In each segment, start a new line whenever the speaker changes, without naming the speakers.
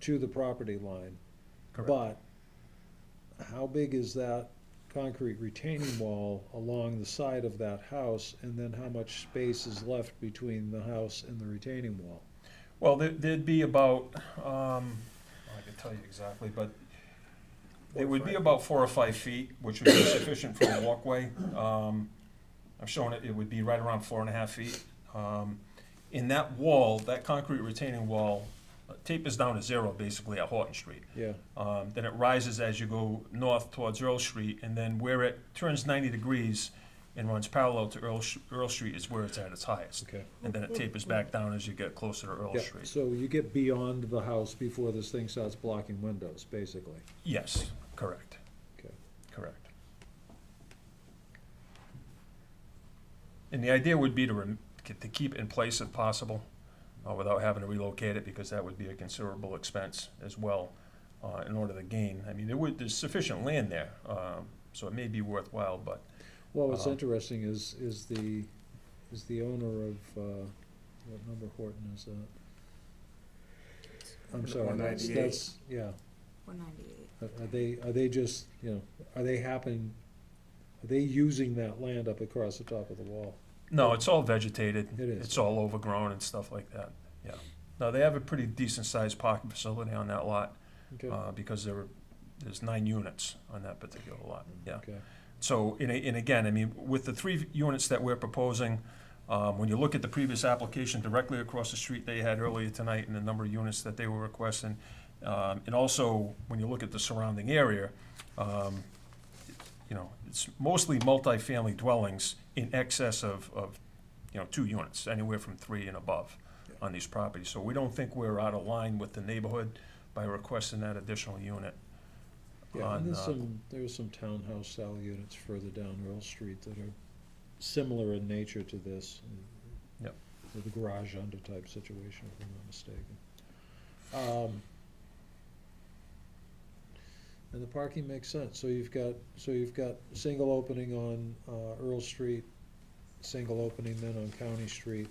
to the property line.
Correct.
But how big is that concrete retaining wall along the side of that house? And then how much space is left between the house and the retaining wall?
Well, there- there'd be about, um, I can tell you exactly, but it would be about four or five feet, which would be sufficient for a walkway. Um, I'm showing it, it would be right around four and a half feet. Um, In that wall, that concrete retaining wall uh, tapers down to zero basically at Horton Street.
Yeah,
Um, Then it rises as you go north towards Earl Street, and then where it turns 90 degrees and runs parallel to Earl, Sh- Earl Street is where it's at its highest.
okay.
And then it tapers back down as you get closer to Earl
Yeah,
Street.
so you get beyond the house before this thing starts blocking windows, basically.
Yes, correct,
Okay.
correct. And the idea would be to, rem- to keep it in place if possible, uh, without having to relocate it, because that would be a considerable expense as well, uh, in order to gain. I mean, there would, there's sufficient land there, um, so it may be worthwhile, but
Well, what's
Uh,
interesting is, is the, is the owner of, uh, what number Horton is that? I'm sorry, that's,
198.
that's, yeah.
One ninety-eight.
Are are they, are they just, you know, are they happen, are they using that land up across the top of the wall?
No, it's all vegetated.
It is.
It's all overgrown and stuff like that, yeah. No, they have a pretty decent-sized parking facility on that lot,
Okay,
uh, because there were, there's nine units on that particular lot, yeah.
okay,
So, and, a- and again, I mean, with the three units that we're proposing, um, when you look at the previous application directly across the street they had earlier tonight and the number of units that they were requesting, um, and also when you look at the surrounding area, um, you know, it's mostly multifamily dwellings in excess of, of, you know, two units, anywhere from three and above on these properties. So we don't think we're out of line with the neighborhood by requesting that additional unit.
yeah, and
on,
there's
uh,
some, there's some townhouse style units further down Earl Street that are similar in nature to this. and
Yep.
With a garage under type situation, if I'm not mistaken. Um, And the parking makes sense, so you've got, so you've got single opening on, uh, Earl Street, single opening then on County Street.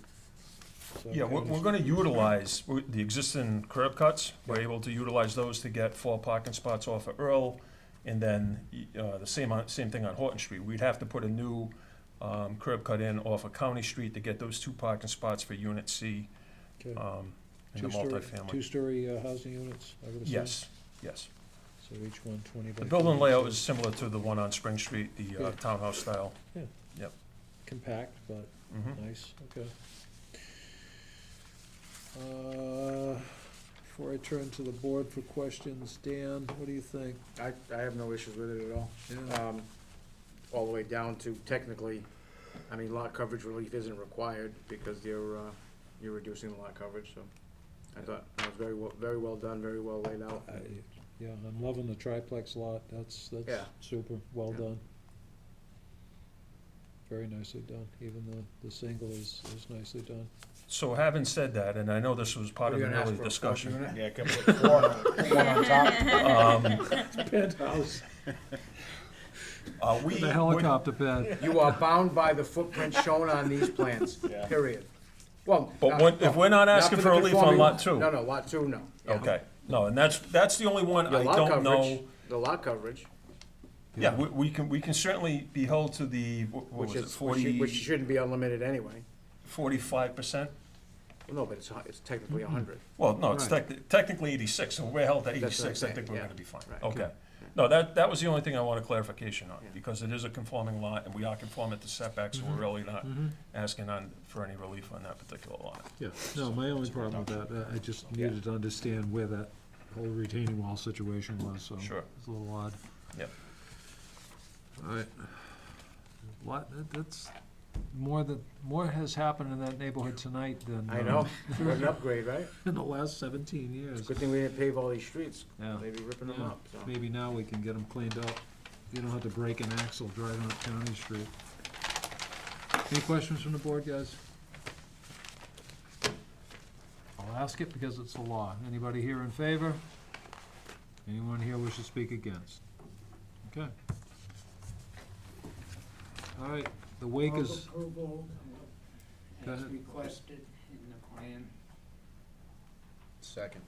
So
Yeah, we're,
County
we're
Street-
gonna utilize, we- the existing curb cuts, we're able to utilize those to get four parking spots off of Earl, and then, y- uh, the same, on- same thing on Horton Street, we'd have to put a new, um, curb cut in off of County Street to get those two parking spots for Unit C,
okay.
um, in the
Two-story,
multifamily.
two-story uh, housing units, I would assume?
Yes, yes.
So each one twenty by.
The building
40,
layout
so
is similar to the one on Spring Street, the, uh,
Yeah.
townhouse style.
Compact, but
Mhm.
nice, okay. Uh, Before I turn to the board for questions, Dan, what do you think?
I, I have no issues with it at all,
Yeah,
um, all the way down to technically, I mean, lot coverage relief isn't required because you're, uh, you're reducing the lot coverage, so. I thought that was very well, very well done, very well laid out.
I- Yeah, I'm loving the triplex lot, that's, that's
Yeah.
super, well
Yeah.
done. Very nicely done, even the, the single is, is nicely done.
So having said that, and I know this was part
Were
of
you
an
gonna ask
early
for a fourth
discussion.
unit?
Yeah, can put four, put one on top.
Um,
Penthouse,
uh, we.
the
we're-
helicopter pad.
You are bound by the footprint shown on these plans,
Yeah.
period. Well.
But
not-
when- if we're not
not
asking
the
for relief on
conforming-
lot two.
No, no, lot two, no. Yeah.
Okay, no, and that's, that's the only one I
Your lot
don't
coverage,
know.
the lot coverage,
Yeah, we, we can, we can certainly be held to the, wh- what
which
was it,
is, which should-
forty,
which shouldn't be unlimited anyway.
forty-five percent?
Well, no, but it's, hu- it's technically a hundred.
Well, no, it's
Right.
tec- technically eighty-six, so we're held at
That's what I'm
eighty-six, I
saying,
think we're
yeah.
gonna be fine,
Right.
okay. No, that, that was the only thing I wanted clarification on,
Yeah. Mm-hmm.
because it is a conforming lot, and we are conforming to setbacks, so we're really not
Mm-hmm.
asking on, for any relief on that particular lot.
Yeah, no, my only problem with that, uh, I- I just needed to understand where that whole retaining wall situation was, so.
Sure.
It's a little odd.
Yep.
Alright. Lot, that- that's, more than, more has happened in that neighborhood tonight than.
I
uh,
know, what an upgrade, right?
In the last seventeen
It's a
years.
good thing we didn't pave all these streets,
Yeah.
they'd be ripping them
Yeah.
up, so.
Maybe now we can get them cleaned up. You don't have to break an axle driving up County Street. Any questions from the board, guys? I'll ask it because it's the law. Anybody here in favor? Anyone here wish to speak against? Okay. All right, the wake
Of
is,
Approval
Go
as
ahead.
requested in the plan.
Second.